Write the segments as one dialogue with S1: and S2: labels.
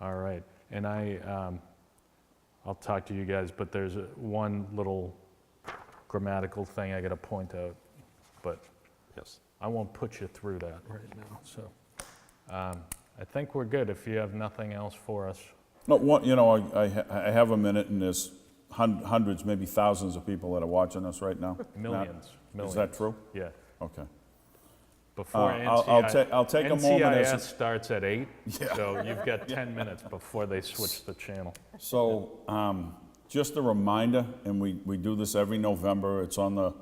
S1: All right. And I, um, I'll talk to you guys, but there's a- one little grammatical thing I got to point out, but
S2: Yes.
S1: I won't put you through that.
S2: Right now.
S1: So um, I think we're good if you have nothing else for us.
S3: No, one, you know, I, I ha- I have a minute and there's hun- hundreds, maybe thousands of people that are watching us right now.
S1: Millions,
S3: Now,
S1: millions.
S3: Is that true?
S1: Yeah.
S3: Okay.
S1: Before
S3: Uh, I'll- I'll
S1: NCI
S3: ta- I'll take a moment
S1: NCIS
S3: as it's-
S1: starts at eight,
S3: Yeah.
S1: so you've got 10 minutes before they switch the channel.
S3: So, um, just a reminder, and we, we do this every November, it's on the,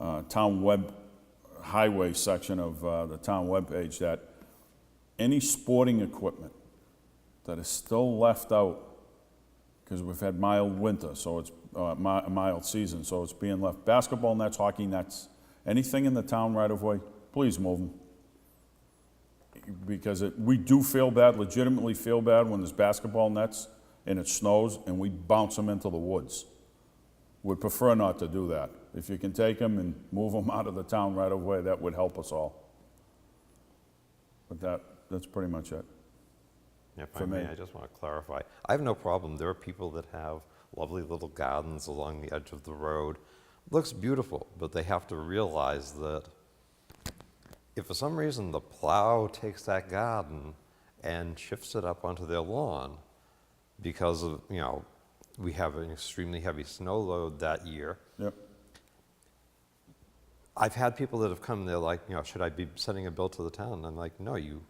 S3: uh, town web, highway section of, uh, the town webpage, that any sporting equipment that is still left out, because we've had mild winter, so it's, uh, mi- mild season, so it's being left, basketball nets, hockey nets, anything in the town right of way, please move them because it, we do feel bad, legitimately feel bad when there's basketball nets and it snows and we bounce them into the woods. We'd prefer not to do that. If you can take them and move them out of the town right away, that would help us all. But that, that's pretty much it.
S2: If I
S3: For
S2: may,
S3: me.
S2: I just want to clarify. I have no problem. There are people that have lovely little gardens along the edge of the road. Looks beautiful, but they have to realize that if for some reason the plow takes that garden and shifts it up onto their lawn because of, you know, we have an extremely heavy snow load that year,
S3: Yep.
S2: I've had people that have come, they're like, you know, should I be sending a bill to the town? And I'm like, no, you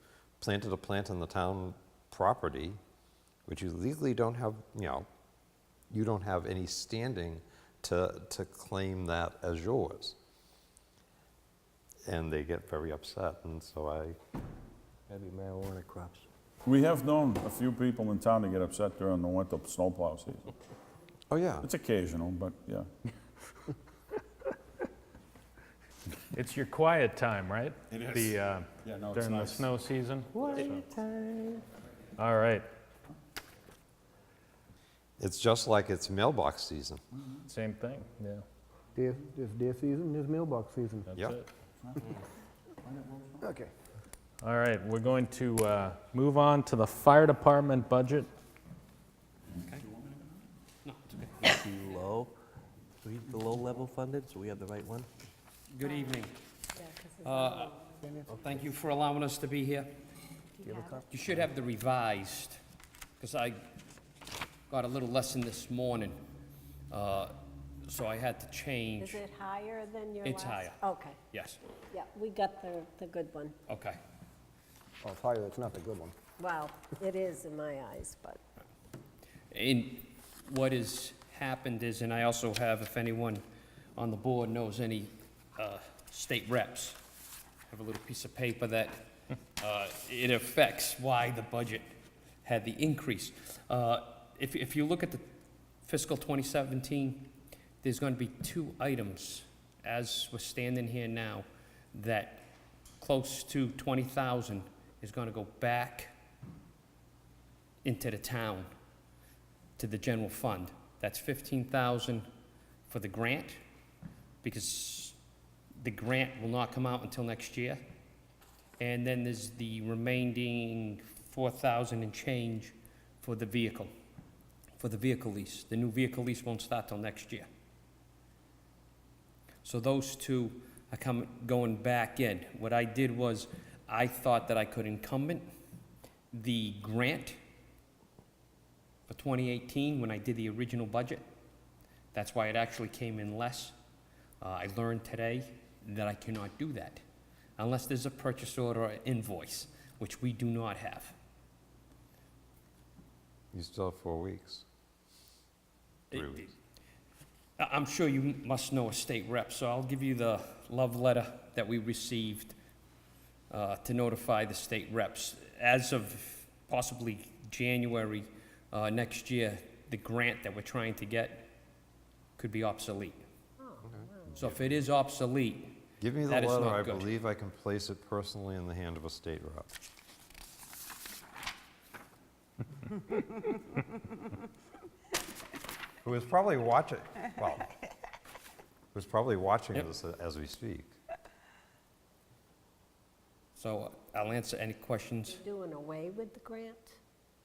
S2: planted a plant on the town property, which you legally don't have, you know, you don't have any standing to, to claim that as yours. And they get very upset, and so I,
S4: Heavy marijuana crops.
S3: We have known a few people in town to get upset during the winter snowplow season.
S2: oh yeah,
S3: It's occasional, but yeah.
S1: It's your quiet time, right?
S3: It is.
S1: The, uh,
S3: Yeah, no, it's
S1: During the
S3: nice.
S1: snow season? All right,
S2: it's just like it's mailbox season.
S1: same thing, yeah,
S4: Deer, there's deer season, there's mailbox season.
S1: that's
S2: Yep.
S1: it.
S4: Okay.
S1: All right, we're going to uh, move on to the fire department budget.
S4: Low, read the low level funded, so we have the right one.
S5: Good evening. Uh, Thank you for allowing us to be here. You should have the revised, because I got a little lesson this morning, uh, so I had to
S6: Is
S5: change.
S6: it higher than your last?
S5: It's higher.
S6: Okay,
S5: Yes,
S6: yeah, we got the, the good one.
S5: okay.
S4: Oh, it's higher, it's not the good one.
S6: Well, it is in my eyes, but
S5: And what has happened is, and I also have, if anyone on the board knows any uh, state reps, I have a little piece of paper that uh, it affects why the budget had the increase. Uh, If, if you look at the fiscal 2017, there's going to be two items, as we're standing here now, that close to 20,000 is going to go back into the town to the general fund. That's fifteen thousand for the grant, because the grant will not come out until next year. And then there's the remaining four thousand and change for the vehicle, for the vehicle lease. The new vehicle lease won't start till next year. So those two are coming, going back in. What I did was, I thought that I could incumbent the grant for 2018, when I did the original budget. That's why it actually came in less. Uh, I learned today that I cannot do that unless there's a purchase order or invoice, which we do not have.
S2: You still have four weeks. Three
S5: It-
S2: weeks.
S5: I- I'm sure you must know a state rep, so I'll give you the love letter that we received uh, to notify the state reps. As of possibly January uh, next year, the grant that we're trying to get could be obsolete. So if it is obsolete,
S2: Give me the
S5: That is
S2: letter,
S5: not
S2: I
S5: good.
S2: believe I can place it personally in the hand of a state rep. Who is probably watching, well, who's probably watching
S5: Yep.
S2: this as we speak.
S5: so I'll answer any questions.
S6: doing away with the grant?